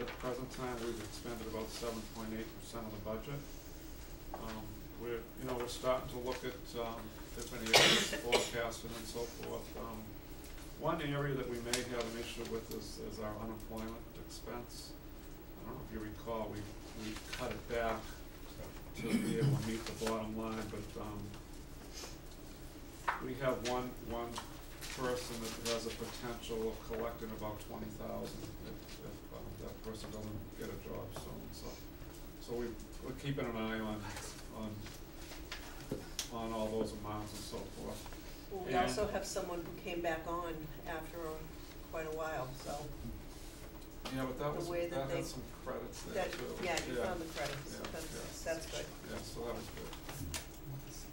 at the present time, we've expended about seven point eight percent of the budget. Um, we're, you know, we're starting to look at, um, different areas, forecasting and so forth. Um, one area that we may have an issue with is, is our unemployment expense. I don't know if you recall, we, we cut it back to be able to meet the bottom line, but, um, we have one, one person that has a potential of collecting about twenty thousand if, if, um, that person doesn't get a job soon, so. So we, we're keeping an eye on, on, on all those amounts and so forth. Well, we And- also have someone who came back on after quite a while, so Yeah, but that The was, way that that had they- some credits there that, too. yeah, you Yeah, found the credits, yeah, that's, yeah. that's good. Yeah, so that was good.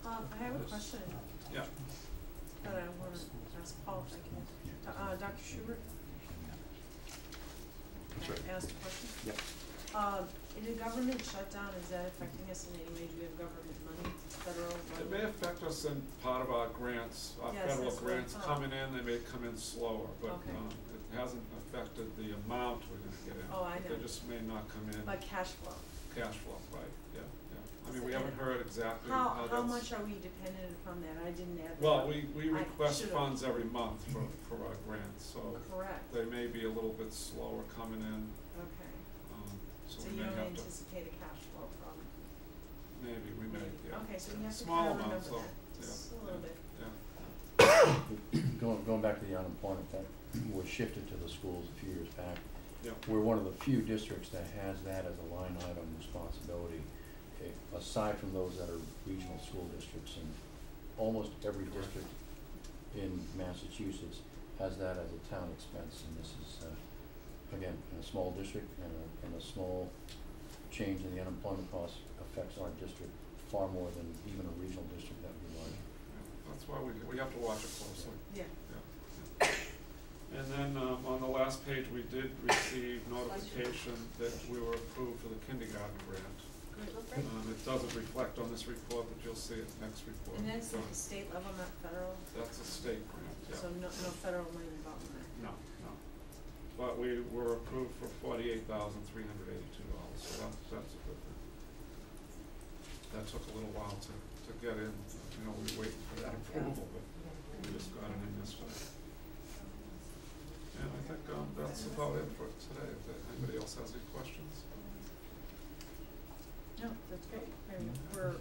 Um, I have a question Yeah, that I wanna ask Paul if I can. Uh, Dr. Schubert? Sure. Can I ask a question? Yep. Um, in a government shutdown, is that affecting us in any way? Do we have government money, federal it money? may affect us in part of our grants, our Yes, federal that's what I grants thought. coming in, they may come in slower, but, Okay. um, it hasn't affected the amount we're gonna get in. Oh, I know. They just may not come in Like cash flow? cash flow, right, yeah, yeah. I mean, So we haven't heard exactly How, how how that's, much are we dependent upon that? I didn't add that. well, up. we, we I request should've- funds every month for, for our grants, so Correct, they may be a little bit slower coming in, okay. um, so So we you may don't have to, anticipate a cash flow problem? maybe, we may, Maybe. yeah. Okay, so you yeah. have to Small kinda remember amounts, though, that, yeah, just a little yeah, bit. yeah. Going, going back to the unemployment, that was shifted to the schools a few years back. Yeah. We're one of the few districts that has that as a line item responsibility, eh, aside from those that are regional school districts. And almost every Correct. district in Massachusetts has that as a town expense. And this is, uh, again, in a small district and a, and a small change in the unemployment cost affects our district far more than even a regional district that would be larger. That's why we, we have to watch it closely, Yeah. yeah. And then, um, on the last page, we did receive notification that we were approved for the kindergarten grant. Good. Um, it doesn't reflect on this report, but you'll see it next report. Um, And that's So at the state level, not federal, That's a state grant, so yeah. no, no federal money involved in that. No, no. But we were approved for forty-eight thousand three hundred eighty-two dollars, so that's, that's a good thing. That took a little while to, to get in, you know, we waited for that approval, but we just got it in this way. And I think, um, that's about it for today, if there- anybody else has any questions? No, that's great, I mean, we're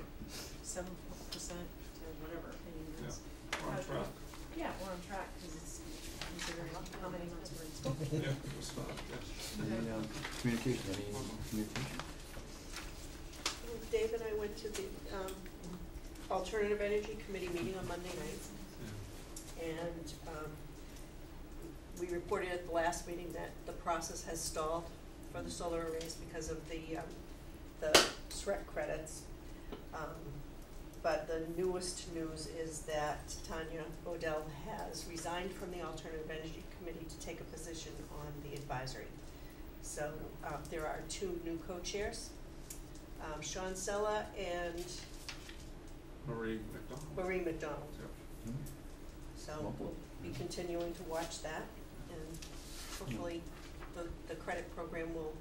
seven percent to whatever, and it's, We're on Okay. track, yeah, we're on track, cause it's considering how many months we're in school. yeah, we're starting, yes. Any, um, communication, any communication? Well, Dave and I went to the, um, Alternative Energy Committee meeting on Monday night, Yeah, and, um, we reported at the last meeting that the process has stalled for the solar arrays because of the, um, the SREC credits. Um, but the newest news is that Tanya Odell has resigned from the Alternative Energy Committee to take a position on the advisory. So, uh, there are two new co-chairs, um, Sean Sella and Marie McDonald. Marie McDonald. Yep. So we'll be continuing to watch that and hopefully the, the credit program will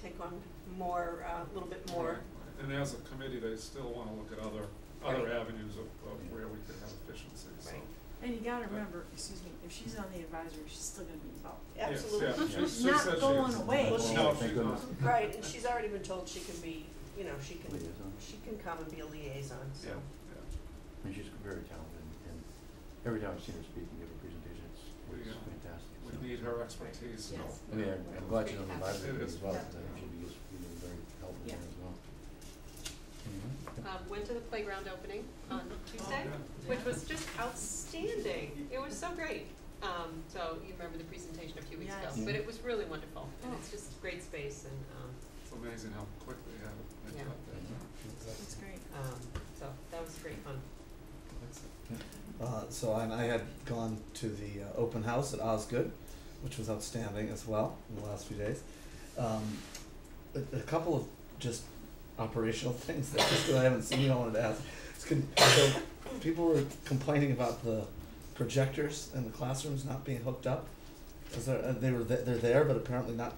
take on more, uh, a little bit more. Right, right. And as a committee, they still wanna look at other, other avenues of, of where we could have efficiency, so. Right. And you gotta remember, excuse me, if she's on the advisory, she's still gonna be involved. Yes, Absolutely. yeah, she- She's she not said she going is. away. No, Well, she's she- not. Thank goodness. Right, and she's already been told she can be, you know, she can, Liaison. she can come and be a liaison, so. Yeah, yeah. I mean, she's very talented, and every time I've seen her speak and give a presentation, it's, We, it's uh, fantastic. so. We need her expertise, so. Yes. I mean, I'm- I'm glad she's on It the library committee is. as Yeah. well, I think she'd be, just, you know, very helpful there Yeah. as well. Mhm. um, went to the playground opening on Oh, Tuesday, Yeah. which was just outstanding. It was so great. Um, so you remember the presentation a few weeks ago, Yes. but it was really wonderful. And Oh. it's just great space and, um, It's amazing how quickly they have, it- they Yeah. got that done. That's great. um, so that was great fun. Uh, so and I had gone to the uh, open house at Osgood, which was outstanding as well in the last few days. Um, a, a couple of just operational things that just that I haven't seen. I wanted to ask. It's con- so people were complaining about the projectors in the classrooms not being hooked up. Is there, uh, they were th- they're there, but apparently not